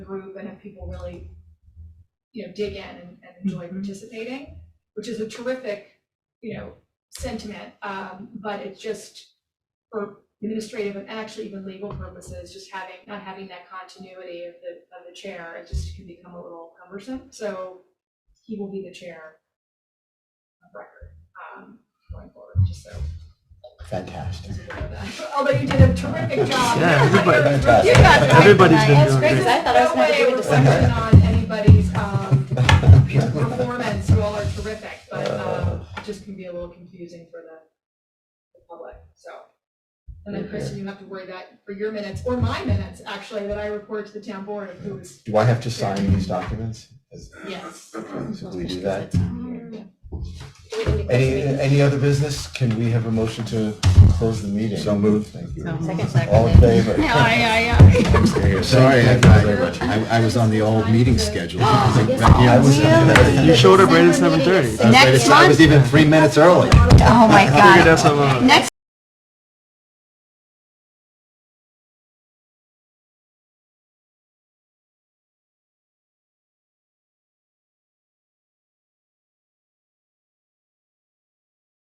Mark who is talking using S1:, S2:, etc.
S1: group and if people really, you know, dig in and and enjoy
S2: Mhm.
S1: participating, which is a terrific, you know, sentiment, um, but it's just for administrative and actually even legal purposes, just having, not having that continuity of the, of the chair, it just can become a little cumbersome, so he will be the chair of record, um, going forward, just so
S3: Fantastic.
S1: Although you did a terrific job.
S2: Yeah, everybody-
S1: You got it.
S2: Everybody's been
S1: There's
S2: doing great.
S4: I thought I was
S1: no
S4: gonna have to
S1: way
S4: do
S1: a
S4: a discussion.
S1: reflection on anybody's um, performance, you all are terrific, but um, it just can be a little confusing for the the public, so. And then Kristen, you have to worry that for your minutes, or my minutes, actually, that I report to the town board of who's,
S3: Do I have to sign these documents? Is-
S4: Yes.
S3: So we do that?
S4: We didn't
S3: Any,
S4: agree.
S3: any other business? Can we have a motion to close the meeting? So moved. Thank you.
S4: Second,
S3: All
S4: second.
S3: in favor?
S5: Yeah, Sorry, I,
S3: Thank you very much.
S5: I, I was on the old meeting schedule.
S4: Oh, yes,
S5: Yeah, I was-
S4: really?
S2: You showed up right at
S4: December meeting is
S2: 7:30.
S5: I was ready to- I was even three minutes early.
S6: Oh my
S2: Figured
S6: God.
S2: out some, uh,
S6: Next